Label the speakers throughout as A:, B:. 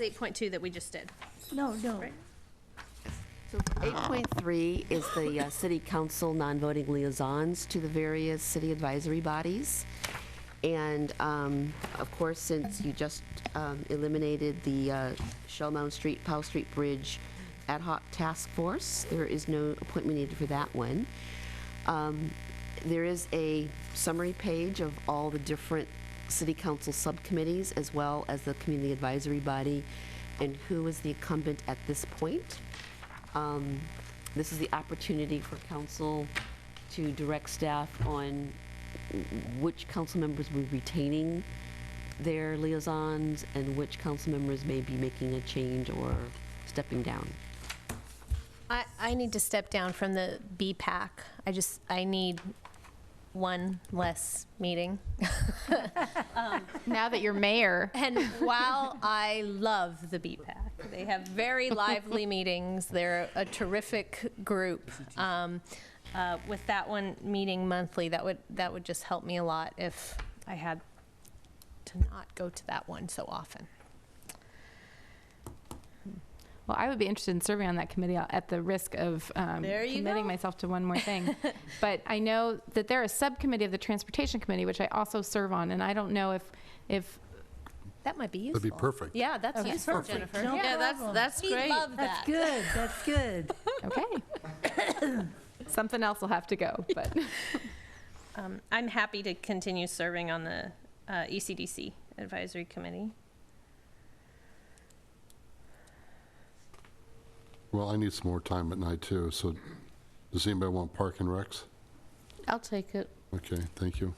A: Eight point two that we just did.
B: No, no.
A: Right.
C: So 8.3 is the uh, city council non-voting liaisons to the various city advisory bodies. And um, of course, since you just um, eliminated the uh, Shell Mound Street, Powell Street Bridge Ad hoc Task Force, there is no appointment needed for that one. Um, There is a summary page of all the different city council subcommittees, as well as the community advisory body, and who is the incumbent at this point. Um, This is the opportunity for council to direct staff on which council members will be retaining their liaisons and which council members may be making a change or stepping down.
A: I, I need to step down from the B pack. I just, I need one less meeting.
D: Now that you're mayor,
A: And while I love the B pack, they have very lively meetings. They're a terrific group. Um, uh, with that one meeting monthly, that would, that would just help me a lot if I had to not go to that one so often.
D: well, I would be interested in serving on that committee uh, at the risk of um,
A: There you
D: committing
A: go.
D: myself to one more thing. but I know that there is a subcommittee of the Transportation Committee, which I also serve on, and I don't know if if
A: That might be useful.
E: That'd be perfect.
A: Yeah, that's
D: Okay.
A: useful,
E: Perfect.
A: Jennifer.
B: No
A: Yeah, that's,
B: problem.
A: that's
F: We
A: great.
F: love
B: That's good, that's good.
D: okay, something else will have to go. But
A: Um, I'm happy to continue serving on the uh, ECDC Advisory Committee.
E: Well, I need some more time at night, too, so does anybody want Park and Recs?
G: I'll take it.
E: Okay, thank you.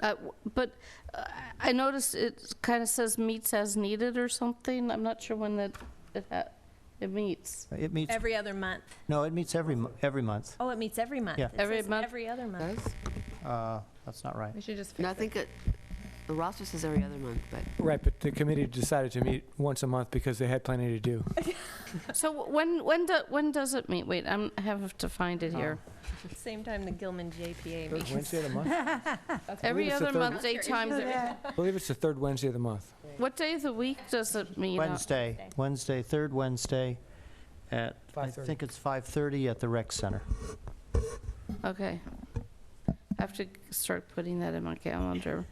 G: Uh, w- But uh, I noticed it kind of says meets as needed or something. I'm not sure when that, it ha- it meets.
H: It meets,
A: Every other month.
H: no, it meets every, mo- every month.
A: Oh, it meets every month.
H: Yeah.
A: It
G: Every
A: says
G: month.
A: Every other month.
H: Uh, That's not right.
D: we should just
C: And I think it- the roster says every other month, but
I: Right, but the committee decided to meet once a month because they had plenty to do.
G: So w- when, when, do- when does it meet? Wait, I'm, I have to find it
I: Oh,
G: here.
A: Same time the Gilman JPA
I: Third
A: meets.
I: Wednesday of the month?
G: Every
I: it's the
G: other
I: third-
G: month, eight times. every-
I: I believe it's the third Wednesday of the month.
G: What day of the week does it meet? on?
H: Wednesday, Wednesday, third Wednesday at, I
I: 5:30.
H: think it's 5:30 at the rec center.
G: Okay. I have to start putting that in my calendar.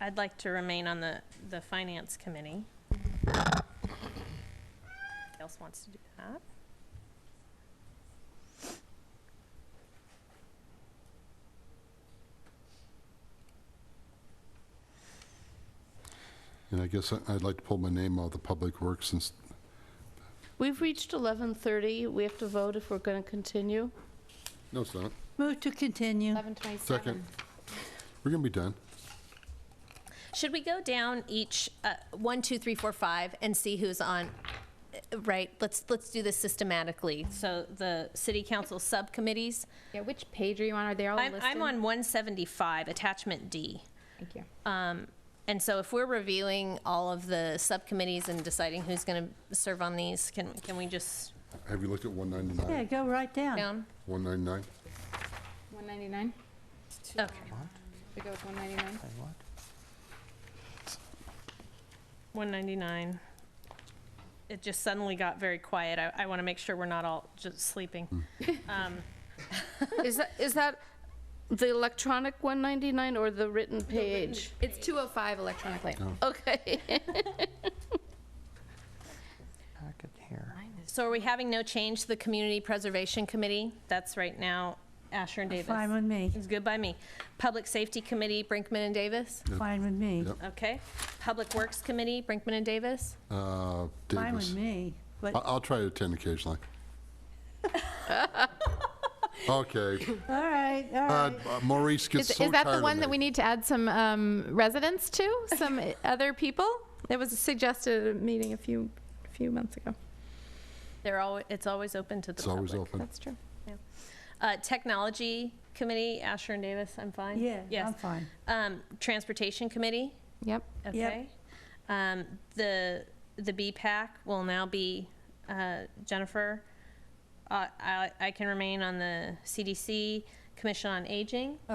A: I'd like to remain on the, the Finance Committee. Who Else wants to do that?
E: And I guess I- I'd like to pull my name out of the Public Works since,
G: We've reached 11:30. We have to vote if we're going to continue.
E: no, it's not.
B: Move to continue.
D: eleven twenty-seven.
E: Second. We're going to be done.
A: Should we go down each, uh, one, two, three, four, five, and see who's on? Uh, Right, let's, let's do this systematically. So the City Council subcommittees,
D: Yeah, which page are you on? Are they all
A: I'm,
D: listed?
A: I'm on 175, Attachment D.
D: Thank you.
A: And so if we're reviewing all of the subcommittees and deciding who's going to serve on these, can, can we just
E: Have you looked at 199?
B: Yeah, go right down.
A: down?
E: 199?
D: One ninety-nine.
A: Okay,
D: We go with one ninety-nine.
H: Say what?
A: 199. It just suddenly got very quiet. I, I want to make sure we're not all just sleeping.
B: Hmm.
A: Um,
G: Is that, is that the electronic 199 or the written page?
D: It's two oh five electronically.
G: Okay.
H: Packet here.
A: So are we having no change to the Community Preservation Committee? That's right now Asher and Davis.
B: Fine with me,
A: It's good by me. Public Safety Committee, Brinkman and Davis?
B: fine with me,
E: Yep.
A: Okay. Public Works Committee, Brinkman and Davis?
E: Uh,
B: fine with
E: Davis.
B: me.
E: I-
B: But,
E: I'll try to attend occasionally. Okay.
B: all right, all
E: Uh,
B: right.
E: Maurice gets
D: Is,
E: so tired
D: is that the one
E: of
D: that
E: me.
D: we need to add some um, residents to? Some other people? It was suggested at a meeting a few a few months ago.
A: They're all, it's always open to the
E: It's always
A: public.
E: open.
D: That's true.
A: Uh, Technology Committee, Asher and Davis, I'm fine?
B: Yeah, I'm
A: Yes.
B: fine.
A: Um, Transportation Committee,
D: Yep.
A: okay. Um, The, the BPAC will now be uh, Jennifer. Uh, I, I can remain on the CDC, Commission on Aging.